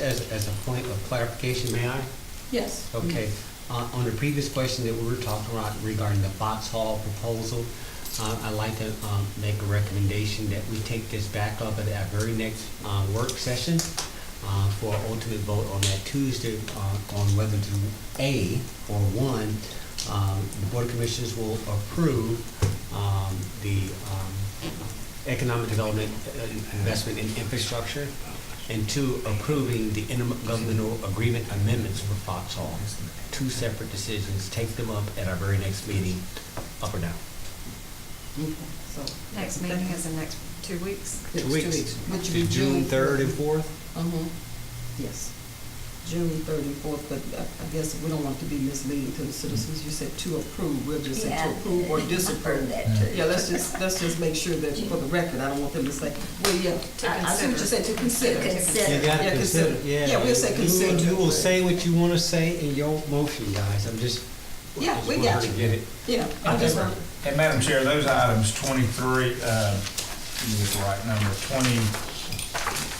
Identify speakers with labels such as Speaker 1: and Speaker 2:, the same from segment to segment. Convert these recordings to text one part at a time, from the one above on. Speaker 1: as, as a point of clarification, may I?
Speaker 2: Yes.
Speaker 1: Okay, on, on the previous question that we were talking about regarding the Fox Hall proposal, uh, I'd like to, um, make a recommendation that we take this back up at our very next, uh, work session, uh, for ultimate vote on that Tuesday, uh, on whether to, A, or one, um, the Board of Commissioners will approve, um, the, um, economic development uh, investment in infrastructure, and two, approving the intergovernmental agreement amendments for Foxhall. Two separate decisions, take them up at our very next meeting, up or down.
Speaker 2: Okay, so.
Speaker 3: Next meeting is in next two weeks.
Speaker 2: Next two weeks. Which would be
Speaker 1: June third and fourth?
Speaker 2: Uh-huh, yes. June third and fourth, but I I guess we don't want to be misleading to the citizens. You said to approve, we'll just say to approve or disapprove. Yeah, let's just, let's just make sure that for the record, I don't want them to say, well, yeah,
Speaker 3: To
Speaker 2: I I see what you said,
Speaker 3: consider.
Speaker 2: to consider.
Speaker 3: To consider.
Speaker 1: You gotta
Speaker 2: Yeah,
Speaker 1: consider,
Speaker 2: consider.
Speaker 1: yeah.
Speaker 2: Yeah, we'll say
Speaker 1: You-
Speaker 2: consider.
Speaker 1: You will say what you wanna say in your motion, guys, I'm just.
Speaker 2: Yeah,
Speaker 1: just
Speaker 2: we
Speaker 1: want her
Speaker 2: got
Speaker 1: to
Speaker 2: you.
Speaker 1: Get it.
Speaker 2: Yeah, I just want,
Speaker 4: And Madam Chair, those items twenty-three, uh, you get the right number, 20,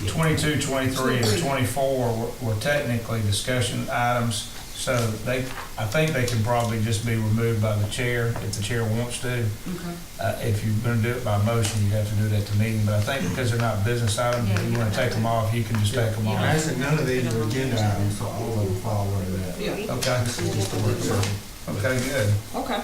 Speaker 1: Yeah.
Speaker 4: 22, 23, and
Speaker 2: 23.
Speaker 4: twenty-four were- were technically discussion items. So they, I think they can probably just be removed by the chair if the chair wants to.
Speaker 2: okay.
Speaker 4: Uh, if you're gonna do it by motion, you have to do it at the meeting, but I think because they're not business items,
Speaker 3: Yeah,
Speaker 4: if you
Speaker 3: you
Speaker 4: wanna
Speaker 3: don't
Speaker 4: take them
Speaker 3: have to.
Speaker 4: off, you can just take them
Speaker 3: Yeah.
Speaker 4: off.
Speaker 5: Actually, none of these are agenda items, so all of them fall under that.
Speaker 2: Yeah,
Speaker 3: Um,
Speaker 4: Okay,
Speaker 5: This is just a work session.
Speaker 4: okay, good.
Speaker 2: okay.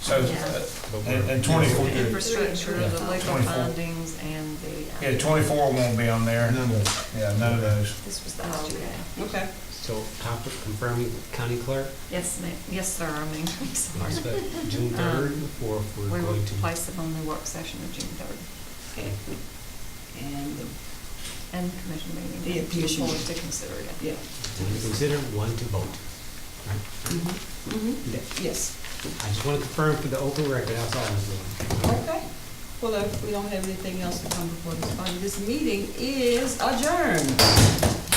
Speaker 4: So, uh, and and twenty-four,
Speaker 3: Infrastructure, the legal
Speaker 4: 24.
Speaker 3: findings, and the. uh,
Speaker 4: yeah, twenty-four won't be on there.
Speaker 5: None of
Speaker 4: Yeah, none of those.
Speaker 3: This was the last year.
Speaker 2: Okay.
Speaker 1: So, con- confirming county clerk,
Speaker 3: Yes, ma'am, yes, sir, I mean, I'm sorry.
Speaker 1: but June third and fourth, we're
Speaker 3: We will
Speaker 1: going to.
Speaker 3: place them on the work session of June third
Speaker 2: Okay. And, uh, the-
Speaker 3: and commission meeting.
Speaker 2: Yeah, commission
Speaker 3: Forward
Speaker 2: meeting.
Speaker 3: to consider it.
Speaker 2: yeah.
Speaker 1: One to consider, one to vote.
Speaker 2: Mm-hmm.
Speaker 1: That-
Speaker 2: Yes.
Speaker 1: I just want to confirm for the open record, that's all I was doing.
Speaker 2: Okay, well, if we don't have anything else to come before this body, this meeting is adjourned.